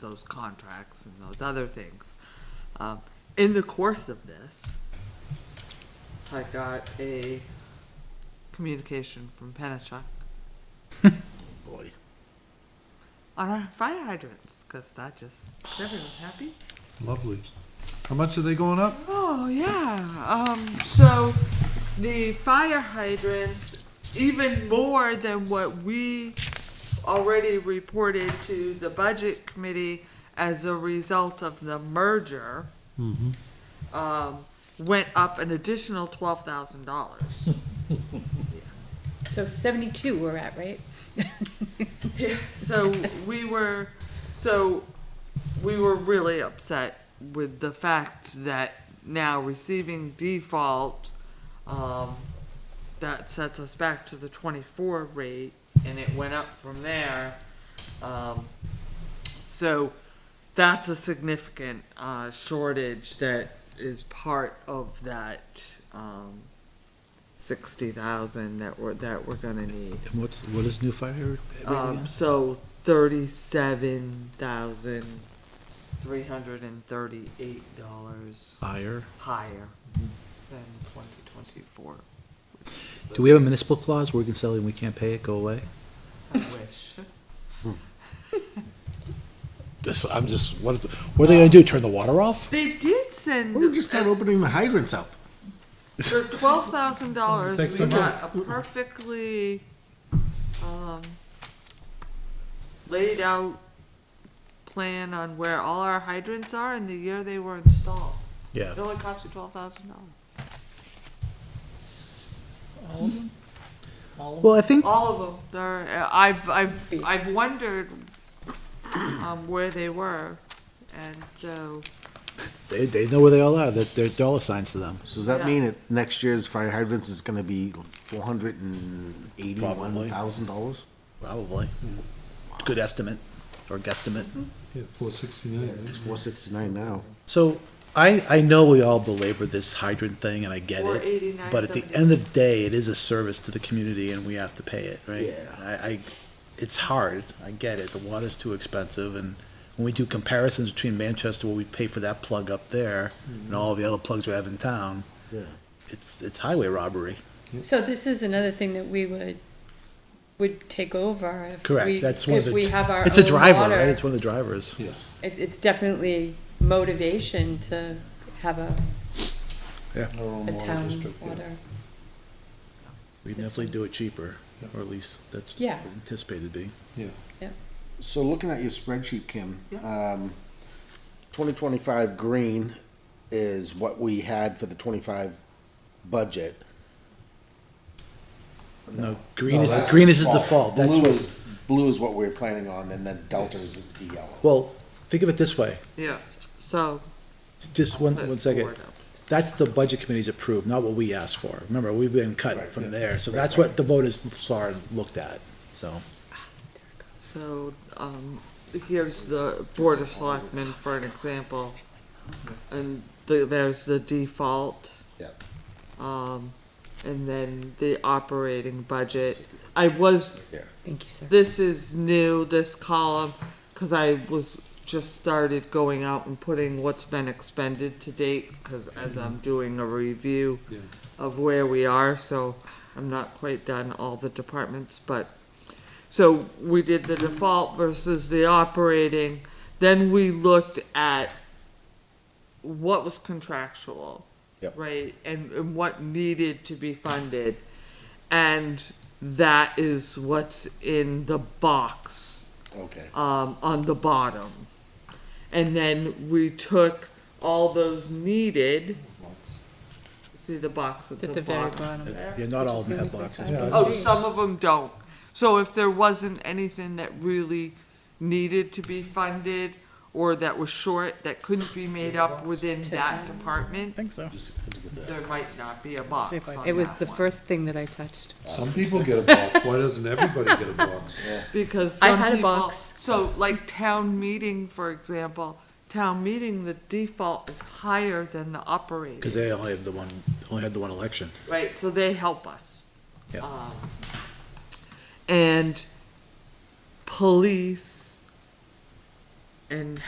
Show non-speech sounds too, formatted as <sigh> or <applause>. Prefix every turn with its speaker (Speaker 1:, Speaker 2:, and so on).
Speaker 1: those contracts and those other things. Um, in the course of this, I got a communication from Penachuk
Speaker 2: Boy.
Speaker 1: on our fire hydrants, cause that just, is everyone happy?
Speaker 2: Lovely. How much are they going up?
Speaker 1: Oh yeah. Um, so the fire hydrants, even more than what we already reported to the budget committee as a result of the merger,
Speaker 2: Mm-hmm.
Speaker 1: um, went up an additional twelve thousand dollars.
Speaker 3: So seventy-two we're at, right?
Speaker 1: So we were, so we were really upset with the fact that now receiving default, um, that sets us back to the twenty-four rate, and it went up from there. Um, so that's a significant, uh, shortage that is part of that, um, sixty thousand that we're, that we're gonna need.
Speaker 2: And what's, what is new fire rate
Speaker 1: Um, so thirty-seven thousand three hundred and thirty-eight dollars
Speaker 2: Fire.
Speaker 1: higher than twenty twenty-four.
Speaker 4: Do we have a municipal clause where we can sell it and we can't pay it, go away?
Speaker 2: <laughs>
Speaker 1: I wish.
Speaker 5: This, I'm just, what, is- what are they gonna do, turn the water off?
Speaker 1: They did send
Speaker 2: We're just not opening the hydrants up.
Speaker 1: for twelve thousand dollars.
Speaker 2: Thanks
Speaker 1: We
Speaker 2: so
Speaker 1: got a perfectly um, laid out plan on where all our hydrants are and the year they were installed.
Speaker 4: Yeah.
Speaker 1: It only cost you twelve thousand dollars.
Speaker 4: Well, I think,
Speaker 1: All of them. They're, uh, I've, I've, I've wondered, um, where they were, and so,
Speaker 4: they, they know where they all are, that they're dollar signs to them.
Speaker 6: So does that mean
Speaker 1: Yes.
Speaker 6: that next year's fire hydrants is gonna be four hundred and eighty-one thousand dollars?
Speaker 4: Probably. Good estimate, or guesstimate.
Speaker 2: Yeah, four sixty-nine.
Speaker 6: It's four sixty-nine now.
Speaker 4: So, I, I know we all belabor this hydrant thing, and I get
Speaker 1: Or
Speaker 4: it.
Speaker 1: 89,
Speaker 4: But at the
Speaker 1: 70.
Speaker 4: end of the day, it is a service to the community, and we have to pay it, right?
Speaker 6: Yeah.
Speaker 4: I, I, it's hard, I get it, the water's too expensive, and when we do comparisons between Manchester, what we pay for that plug up there, and all the other plugs we have in town,
Speaker 6: Yeah.
Speaker 4: it's, it's highway robbery.
Speaker 3: So this is another thing that we would, would take over if
Speaker 4: Correct,
Speaker 3: we,
Speaker 4: that's one
Speaker 3: if
Speaker 4: of the-
Speaker 3: we have our own water.
Speaker 4: It's a driver, right? It's one of the drivers.
Speaker 2: Yes.
Speaker 3: It, it's definitely motivation to have a, a town water.
Speaker 4: We
Speaker 3: This
Speaker 4: definitely
Speaker 3: one.
Speaker 4: do it cheaper, or at least that's
Speaker 3: Yeah.
Speaker 4: anticipated to be.
Speaker 6: So looking at your spreadsheet, Kim,
Speaker 1: Yeah.
Speaker 6: um, twenty twenty-five green is what we had for the twenty-five budget.
Speaker 4: No, green
Speaker 6: No,
Speaker 4: is,
Speaker 6: that's
Speaker 4: green is the default, that's
Speaker 6: Blue
Speaker 4: what,
Speaker 6: is, blue is what we're planning on, and then delta is the yellow.
Speaker 4: well, think of it this way,
Speaker 1: yes, so.
Speaker 4: just one,
Speaker 1: put
Speaker 4: one second.
Speaker 1: forward up.
Speaker 4: That's the budget committee's approved, not what we asked for. Remember, we've been cut
Speaker 6: Right,
Speaker 4: from
Speaker 6: yeah.
Speaker 4: there, so
Speaker 6: Right,
Speaker 4: that's what the voters saw and looked at, so.
Speaker 1: So, um, here's the Board of Selectmen for an example, and the, there's the default.
Speaker 6: Yep.
Speaker 1: Um, and then the operating budget. I was
Speaker 3: Thank you, sir.
Speaker 1: This is new, this column, because I was, just started going out and putting what's been expended to date, because as I'm doing a review
Speaker 2: Yeah.
Speaker 1: of where we are, so I'm not quite done all the departments, but, so we did the default versus the operating, then we looked at what was contractual.
Speaker 6: Yep.
Speaker 1: Right, and, and what needed to be funded, and that is what's in the box
Speaker 6: Okay.
Speaker 1: um, on the bottom. And then we took all those needed. See the box at
Speaker 3: It's at
Speaker 1: the
Speaker 3: the very
Speaker 1: bottom.
Speaker 3: bottom.
Speaker 4: Yeah, not all of them have boxes, but
Speaker 1: Oh, some of them don't. So if there wasn't anything that really needed to be funded or that was short, that couldn't be made up within that department,
Speaker 7: think so.
Speaker 1: there might not be a box
Speaker 7: See if I
Speaker 1: on
Speaker 7: see
Speaker 3: It was
Speaker 1: that
Speaker 3: the
Speaker 1: one.
Speaker 3: first thing that I touched.
Speaker 2: Some people get a box. Why doesn't everybody get a box?
Speaker 1: because
Speaker 3: I
Speaker 1: some
Speaker 3: had a
Speaker 1: people-
Speaker 3: box.
Speaker 1: So, like town meeting, for example, town meeting, the default is higher than the operating,
Speaker 4: because they only have the one, only had the one election.
Speaker 1: right? So they help us.
Speaker 4: Yeah.
Speaker 1: Um, and police and